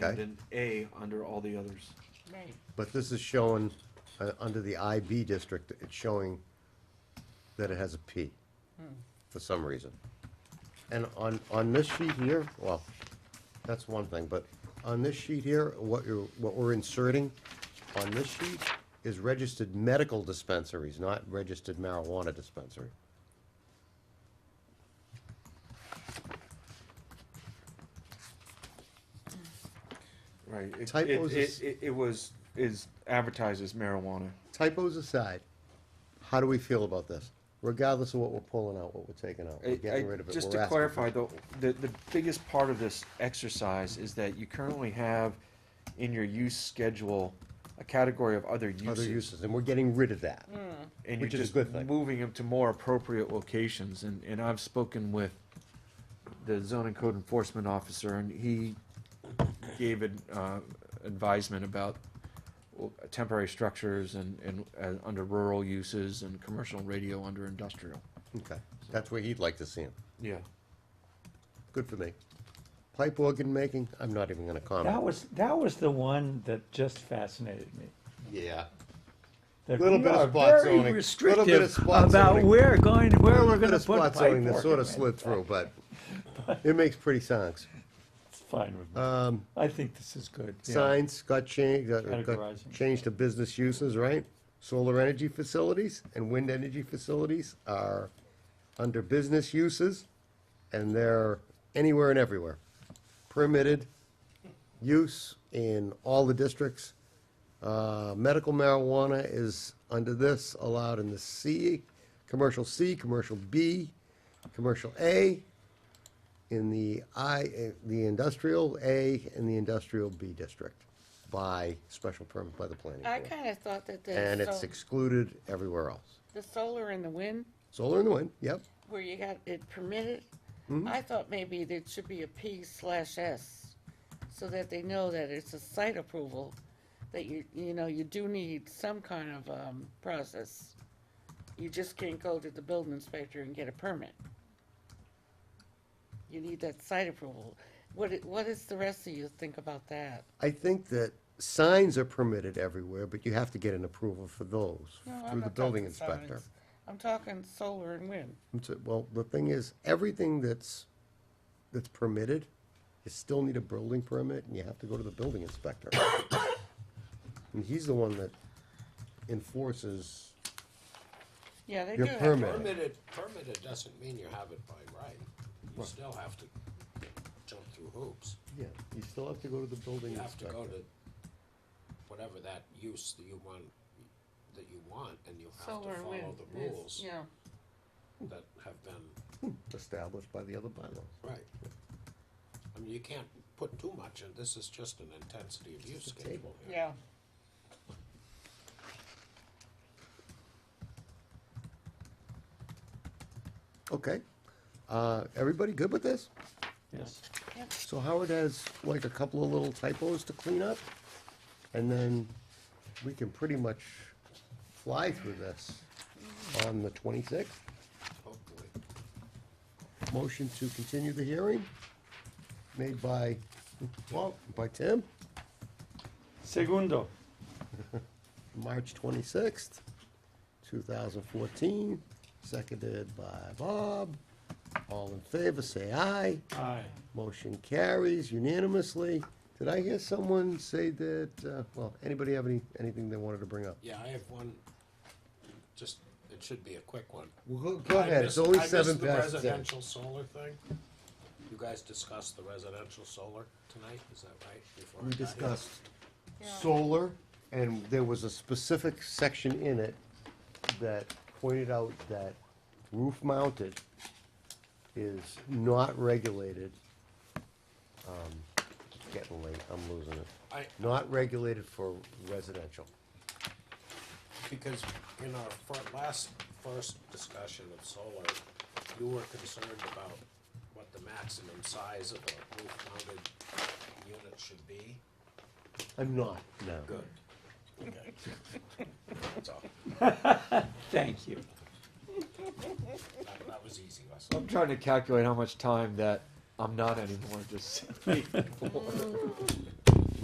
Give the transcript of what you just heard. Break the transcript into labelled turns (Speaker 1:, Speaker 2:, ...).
Speaker 1: Okay.
Speaker 2: and then A under all the others.
Speaker 3: Right.
Speaker 1: But this is showing, uh, under the IB district, it's showing that it has a P for some reason. And on, on this sheet here, well, that's one thing, but on this sheet here, what you're, what we're inserting on this sheet is registered medical dispensaries, not registered marijuana dispensary.
Speaker 2: Right. It, it,
Speaker 1: Typos
Speaker 2: it,
Speaker 1: is-
Speaker 2: it, it was is advertised as marijuana.
Speaker 1: Typos aside, how do we feel about this? Regardless of what we're pulling out, what we're taking out,
Speaker 2: I-
Speaker 1: we're getting
Speaker 2: I-
Speaker 1: rid of it,
Speaker 2: Just
Speaker 1: we're
Speaker 2: to
Speaker 1: asking for
Speaker 2: clarify, though, the, the biggest part of this exercise is that you currently have in your use schedule a category of other
Speaker 1: Other
Speaker 2: uses.
Speaker 1: uses, and we're getting rid of that.
Speaker 2: And you're
Speaker 1: which is a
Speaker 2: just
Speaker 1: good thing.
Speaker 2: moving them to more appropriate locations, and, and I've spoken with the zoning code enforcement officer, and he gave an, uh, advisement about well, temporary structures and, and, uh, under rural uses and commercial radio under industrial.
Speaker 1: Okay, that's where he'd like to see him.
Speaker 2: Yeah.
Speaker 1: Good for me. Pipe organ making, I'm not even gonna
Speaker 4: That
Speaker 1: comment.
Speaker 4: was, that was the one that just fascinated me.
Speaker 1: Yeah.
Speaker 4: That
Speaker 1: Little
Speaker 4: we
Speaker 1: bit of
Speaker 4: are
Speaker 1: spot zoning, little
Speaker 4: Very
Speaker 1: bit of
Speaker 4: restrictive
Speaker 1: spot
Speaker 4: about
Speaker 1: zoning.
Speaker 4: where going, where
Speaker 1: There
Speaker 4: we're gonna put
Speaker 1: spot
Speaker 4: pipe
Speaker 1: zoning that sort
Speaker 4: organ.
Speaker 1: of slid through, but it makes pretty songs.
Speaker 4: It's fine with me.
Speaker 1: Um,
Speaker 4: I think this is good. yeah.
Speaker 1: signs got changed, uh, got- got
Speaker 4: Categorizing.
Speaker 1: changed to business uses, right? Solar energy facilities and wind energy facilities are under business uses, and they're anywhere and everywhere. Permitted use in all the districts. Uh, medical marijuana is under this allowed in the C, commercial C, commercial B, commercial A, in the I, eh, the industrial A and the industrial B district by special permit by the planning
Speaker 3: I
Speaker 1: board.
Speaker 3: kind of thought that
Speaker 1: And
Speaker 3: the,
Speaker 1: it's
Speaker 3: sol-
Speaker 1: excluded everywhere else.
Speaker 3: the solar and the wind,
Speaker 1: Solar and wind, yep.
Speaker 3: where you got it permitted,
Speaker 1: Mm-hmm.
Speaker 3: I thought maybe there should be a P slash S, so that they know that it's a site approval, that you, you know, you do need some kind of, um, process. You just can't go to the building inspector and get a permit. You need that site approval. What, i- what does the rest of you think about that?
Speaker 1: I think that signs are permitted everywhere, but you have to get an approval for those
Speaker 3: No, I'm
Speaker 1: through the
Speaker 3: not
Speaker 1: building
Speaker 3: talking signs.
Speaker 1: inspector.
Speaker 3: I'm talking solar and wind.
Speaker 1: I'm so- Well, the thing is, everything that's, that's permitted, you still need a building permit and you have to go to the building inspector. And he's the one that enforces
Speaker 3: Yeah, they do
Speaker 1: your
Speaker 3: have.
Speaker 1: permit.
Speaker 5: Permitted, permitted doesn't mean you have it by right. You still have to jump through hoops.
Speaker 1: Yeah, you still have to go to the building
Speaker 5: You have to go
Speaker 1: inspector.
Speaker 5: to whatever that use that you want, that you want, and you have
Speaker 3: Solar
Speaker 5: to
Speaker 3: and
Speaker 5: follow
Speaker 3: wind
Speaker 5: the
Speaker 3: is,
Speaker 5: rules
Speaker 3: yeah.
Speaker 5: that have been,
Speaker 1: Established by the other bylaws.
Speaker 5: right. I mean, you can't put too much, and this is just an intensity of use
Speaker 1: a
Speaker 5: schedule.
Speaker 1: table.
Speaker 5: here.
Speaker 3: Yeah.
Speaker 1: Okay, uh, everybody good with this?
Speaker 4: Yes.
Speaker 1: So Howard has like a couple of little typos to clean up, and then we can pretty much fly through this on the twenty-sixth.
Speaker 5: Hopefully,
Speaker 1: Motion to continue the hearing, made by, well, by Tim,
Speaker 4: Segundo,
Speaker 1: March twenty-sixth, two thousand fourteen, seconded by Bob. All in favor, say aye.
Speaker 4: aye.
Speaker 1: Motion carries unanimously. Did I hear someone say that, uh, well, anybody have any, anything they wanted to bring up?
Speaker 5: yeah, I have one, just, it should be a quick one.
Speaker 1: Well, go- go
Speaker 5: I
Speaker 1: ahead, it's
Speaker 5: missed-
Speaker 1: only
Speaker 5: I missed
Speaker 1: seven
Speaker 5: the
Speaker 1: past ten.
Speaker 5: Residential solar thing? You guys discussed the residential solar tonight, is that right? Before I
Speaker 1: We
Speaker 5: got here?
Speaker 1: discussed solar, and there was a specific section in it that pointed out that roof mounted is not regulated. um, it's Getting late, I'm losing it.
Speaker 5: I,
Speaker 1: Not regulated for residential.
Speaker 5: because in our fir- last, first discussion of solar, you were concerned about what the maximum size of a roof mounted unit should be.
Speaker 1: I'm not, no.
Speaker 5: Good. Okay. That's all.
Speaker 4: Thank you.
Speaker 5: That, that was easy, Russell.
Speaker 2: I'm trying to calculate how much time that I'm not anymore, just.